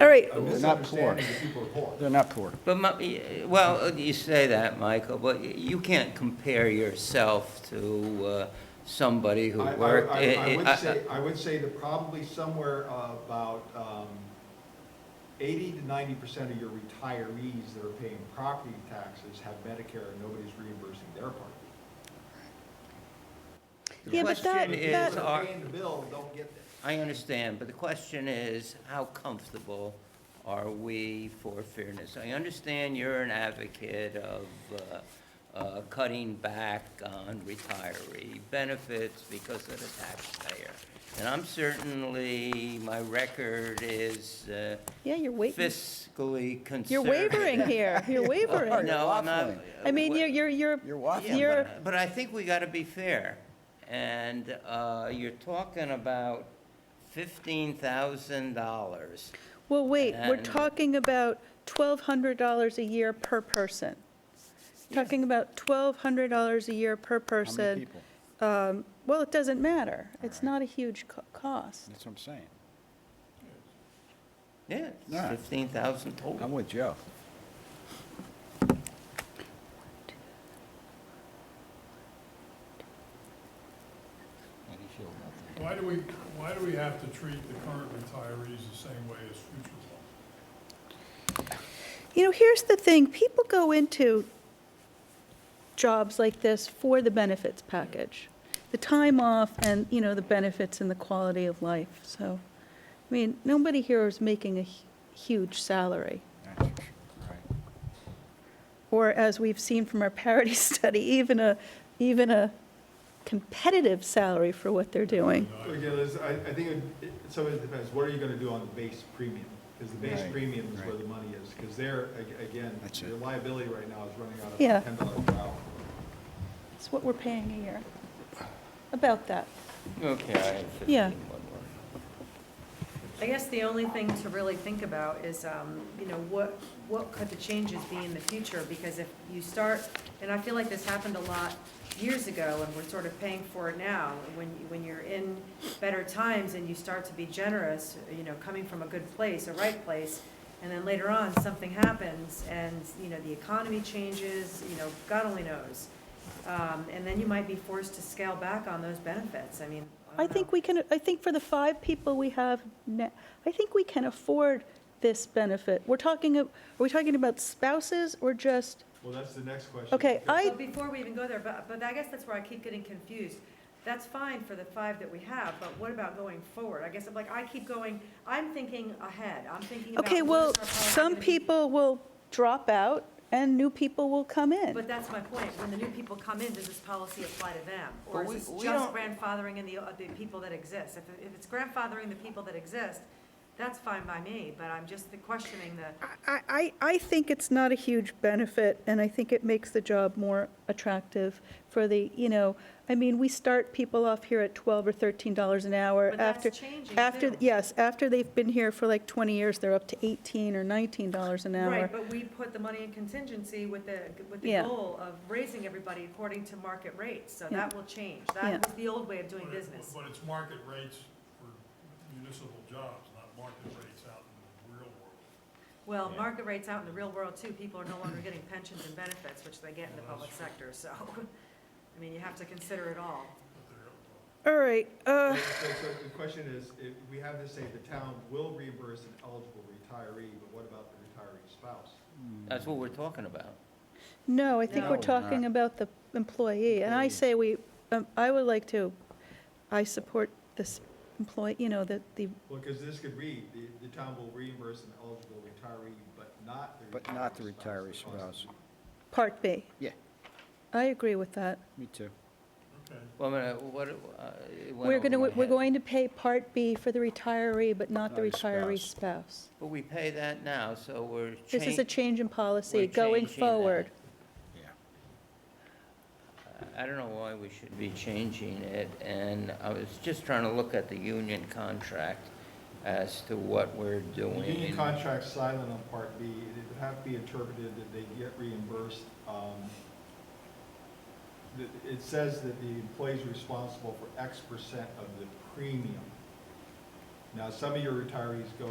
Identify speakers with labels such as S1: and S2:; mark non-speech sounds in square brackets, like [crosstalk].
S1: All right.
S2: a
S3: They're not poor.
S2: misunderstanding that people are poor.
S3: They're not poor.
S4: But, my- well, you say that, Michael, but you can't compare yourself to uh, somebody who
S2: I- I-
S4: worked.
S2: I- I
S4: Eh, I- I-
S2: would say, I would say that probably somewhere uh, about um, eighty to ninety percent of your retirees that are paying property taxes have Medicare and nobody's reimbursing their part.
S4: the
S1: Yeah, but that-
S4: question is,
S1: that-
S4: are-
S2: They're Paying the bill, don't get this.
S4: I understand, but the question is, how comfortable are we for fairness? I understand you're an advocate of uh, uh, cutting back on retiree benefits because of the taxpayer. And I'm certainly, my record is uh,
S1: Yeah, you're wavering.
S4: fiscally conservative.
S1: You're wavering
S4: [laughs]
S1: here. You're [laughs] wavering.
S4: No, I'm not.
S1: I mean, you're, you're, you're.
S3: You're waffling.
S4: Yeah, but-
S1: You're,
S4: But I think we got to be fair. And uh, you're talking about $15,000.
S1: well, wait, we're
S4: And-
S1: talking about $1,200 a year per person. Talking about $1,200 a year per
S3: How
S1: person.
S3: many people?
S1: Um, Well, it doesn't matter. It's
S3: right.
S1: not a huge co- cost.
S3: That's what I'm saying.
S4: Yeah, it's
S3: All right. Um,
S4: 15,000
S3: I'm
S4: total.
S3: with Joe.
S5: Why do we, why do we have to treat the current retirees the same way as future ones?
S1: You know, here's the thing, people go into jobs like this for the benefits package, the time off and, you know, the benefits and the quality of life, so, I mean, nobody here is making a hu- huge salary,
S3: That's for sure. Right.
S1: or as we've seen from our parity [laughs] study, even a, even a competitive salary for what they're doing.
S2: Again, it's- I, I think it- it, some of it depends, what are you gonna do on the base premium? Because the base
S3: Right,
S2: premium is where
S3: right.
S2: the money is, because there, ag- again,
S3: That's
S2: your
S3: it.
S2: liability right now is running out
S1: Yeah.
S2: of ten dollars per hour.
S1: It's what we're paying a year, about that.
S4: Okay, I have
S1: Yeah.
S4: 15, one more.
S6: I guess the only thing to really think about is, um, you know, what, what could the changes be in the future? Because if you start, and I feel like this happened a lot years ago, and we're sort of paying for it now. When, when you're in better times and you start to be generous, you know, coming from a good place, a right place, and then later on, something happens, and, you know, the economy changes, you know, God only knows. Um, and then you might be forced to scale back on those benefits, I mean, I
S1: I
S6: don't know.
S1: think we can, I think for the five people we have, na- I think we can afford this benefit. We're talking, of- are we talking about spouses or just,
S2: Well, that's the next question.
S1: okay,
S2: because-
S1: I,
S6: But before we even go there, but, but I guess that's where I keep getting confused. That's fine for the five that we have, but what about going forward? I guess I'm like, I keep going, I'm thinking ahead, I'm thinking about.
S1: okay,
S6: what
S1: well,
S6: is our policy
S1: some
S6: gonna be?
S1: people will drop out and new people will come in.
S6: But that's my point, when the new people come in, does this policy apply to them?
S4: But
S6: Or is
S4: we-
S6: this
S4: we
S6: just
S4: don't-
S6: grandfathering in the, uh, the people that exist? If, if it's grandfathering the people that exist, that's fine by me, but I'm just questioning the,
S1: I, I, I think it's not a huge benefit, and I think it makes the job more attractive for the, you know, I mean, we start people off here at 12 or 13 dollars an hour.
S6: But that's
S1: after
S6: changing,
S1: After,
S6: too.
S1: yes, after they've been here for like 20 years, they're up to 18 or 19 dollars an hour.
S6: right, but we put the money in contingency with the, with the
S1: Yeah.
S6: goal of raising everybody according to market rates, so
S1: Yeah.
S6: that will change.
S1: Yeah.
S6: That was the old way of doing
S5: But it-
S6: business.
S5: But it's market rates for municipal jobs, not market rates out in the real world.
S6: Well, market rates out in the real world too, people are no longer getting pensions and benefits, which they get in the public sector, so, [laughs] I mean, you have to consider it all.
S5: But they're,
S1: All right, uh,
S2: So, so the question is, if we have to say the town will reimburse an eligible retiree, but what about the retiree spouse?
S4: That's what we're talking about.
S1: no, I think
S6: No.
S1: we're
S6: No,
S1: talking
S3: not.
S1: about the employee, and I
S3: Employee.
S1: say we, um, I would like to, I support this employee, you know, the, the,
S2: Well, because this could read, the, the town will reimburse an eligible retiree, but not the retiree
S3: But not the retiree
S2: spouse, the cost of
S3: spouse.
S1: Part B.
S3: Yeah,
S1: I agree with that.
S3: me too.
S5: okay.
S4: Well, I mean, what, uh, it went
S1: We're
S4: over
S1: going to,
S4: my
S1: we're
S4: head.
S1: going to pay Part B for the retiree, but not the
S3: Not the
S1: retiree
S3: spouse.
S1: spouse.
S4: But we pay that now, so we're.
S1: This is a
S4: chan-
S1: change in policy
S4: we're
S1: going
S4: changing that.
S1: forward.
S3: Yeah.
S4: I I don't know why we should be changing it, and I was just trying to look at the union contract as to what we're doing.
S2: The union contract's silent on Part B. It would have to be interpreted that they get reimbursed. um, that It says that the employee's responsible for X percent of the premium. Now, some of your retirees go